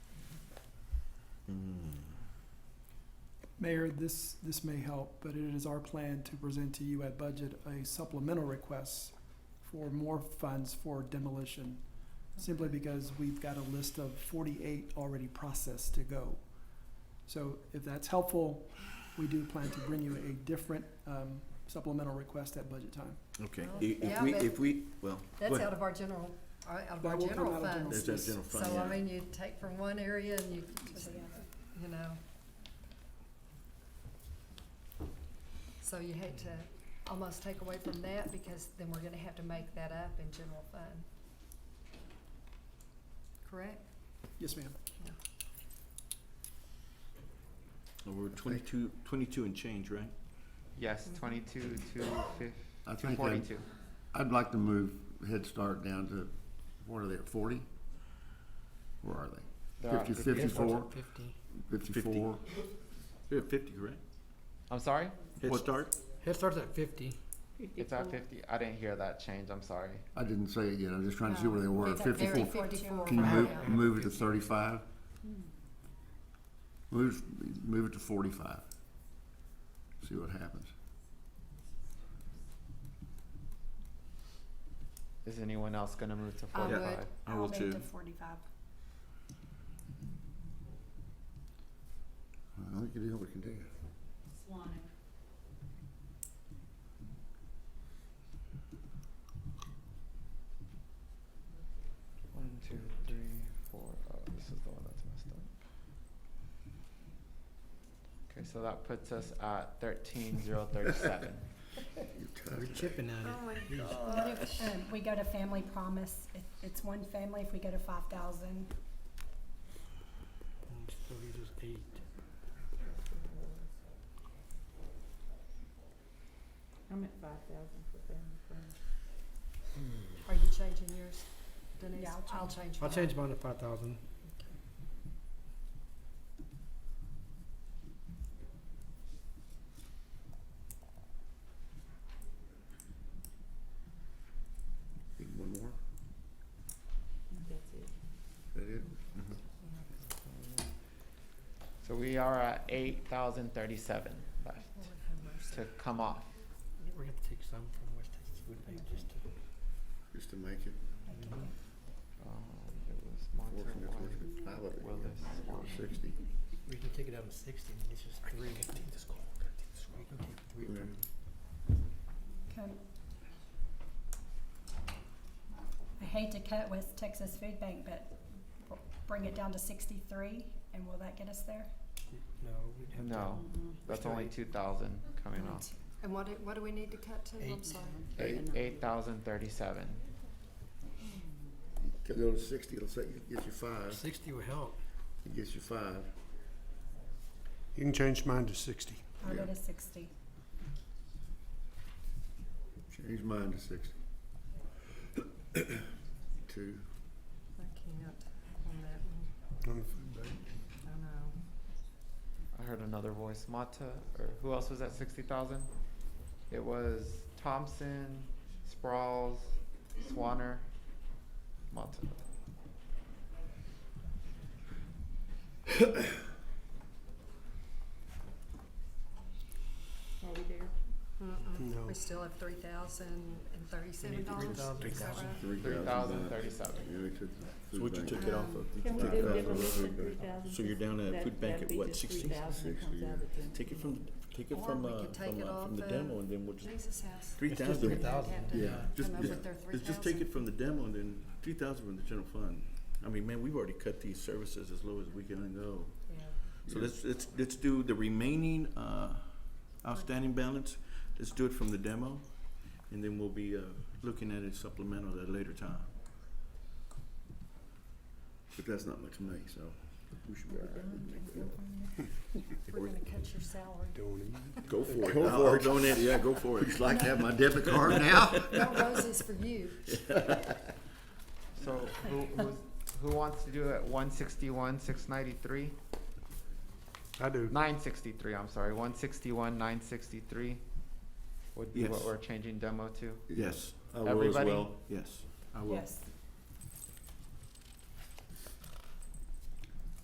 Mayor, this, this may help, but it is our plan to present to you at budget a supplemental request for more funds for demolition, simply because we've got a list of forty-eight already processed to go. So if that's helpful, we do plan to bring you a different um, supplemental request at budget time. Okay, Well, i- if Oh, yeah, we, but- if we, well, go That's out ahead. of our general, our- out of That our will come general out of general funds. There's that general fund, So, I yeah. mean, you take from one area and you, you know. So you had to almost take away from that because then we're gonna have to make that up in general fund. Correct? Yes, ma'am. Well, We're twenty-two, twenty-two and change, right? Yes, twenty-two, two fif- I two think I'd, forty-two. I'd like to move Head Start down to, what are they, at forty? Where are they? Fifty, fifty-four, fifty-four? They're at fifty, correct? I'm sorry? Head What- Start? Head starts at fifty. It's at fifty. I didn't hear that change. I'm sorry. I didn't say it yet, I'm just trying to see where they were, Oh, It's at fifty-four. 54. Can you move, Yeah. move it to thirty-five? Move, move it to forty-five. See what happens. Is anyone else gonna move to I forty-five? would, I will too. forty-five. I think it is what we can do. One, two, three, four. Oh, this is the one that's messed up. Okay, so that puts us at thirteen zero thirty-seven. We're chipping at it. Um, we go to Family Promise, it, it's one family, if we go to five thousand, And So he just eight. I'm at five thousand for family friends. are you changing yours, Denise? Yeah, I'll I'll change I'll mine. change mine to five thousand. Need One more, That's it. that it? So we are at eight thousand thirty-seven left Lord have mercy. to come off. We're gonna take some from West Texas Food Bank just to. Just to make it, Um, it was Monterey, working, it's working, I love it, Willis, Swan. sixty. We can take it out of sixty and it's just three. take this call. We can take three Yeah. from okay. I hate to cut West Texas Food Bank, but br- bring it down to sixty-three, and will that get us there? No, we'd have to. No, that's only two thousand coming off. And what, do- what do we need to cut to? I'm Eight. sorry. Eight, eight thousand thirty-seven. Go to sixty, it'll say, get you five, Sixty will help. it gets you five. You can change mine to sixty. I'll go Yeah. to sixty. Change mine to sixty. Two. I can't on that one. I know. I heard another voice, Mata, or who else was at sixty thousand? It was Thompson, Sprouls, Swanner, Mata. Are we there? No. We still have three thousand and thirty-seven need dollars. $3,000. Three thousand thirty-seven. Yeah, we took the So food what you bank. took it off of? Can we Five do it thousand, differently that's than good. three thousand? So you're down at food bank at what, sixty? That'd be just three thousand, comes Sixty, out of the. Take it from, take it Or from, we uh, could take from, it uh, from off the the- demo and then we'll just, Jesus house. three It's just thousand. three They'd thousand. have to Yeah, just- Come up yeah. with their three Let's thousand. just take it from the demo and then three thousand from the general fund. I mean, man, we've already cut these services as low as we can go. So Yeah. let's, let's, let's do the remaining, uh, outstanding balance, let's do it from the demo, and then we'll be, uh, looking at it supplemental at a later time. But that's not much money, so we should be all right. We can make that up. We're gonna cut your salary. Go for it. Go I'll- for I'll it. donate it. yeah, go for it. Would you like to have my debit card now? No roses for you. So who, who's, who wants to do it, one sixty-one, six ninety-three? I do. Nine sixty-three, I'm sorry, one sixty-one, nine sixty-three would be what Yes. we're changing demo to. Yes, I will as Everybody? well, yes, I will. Yes,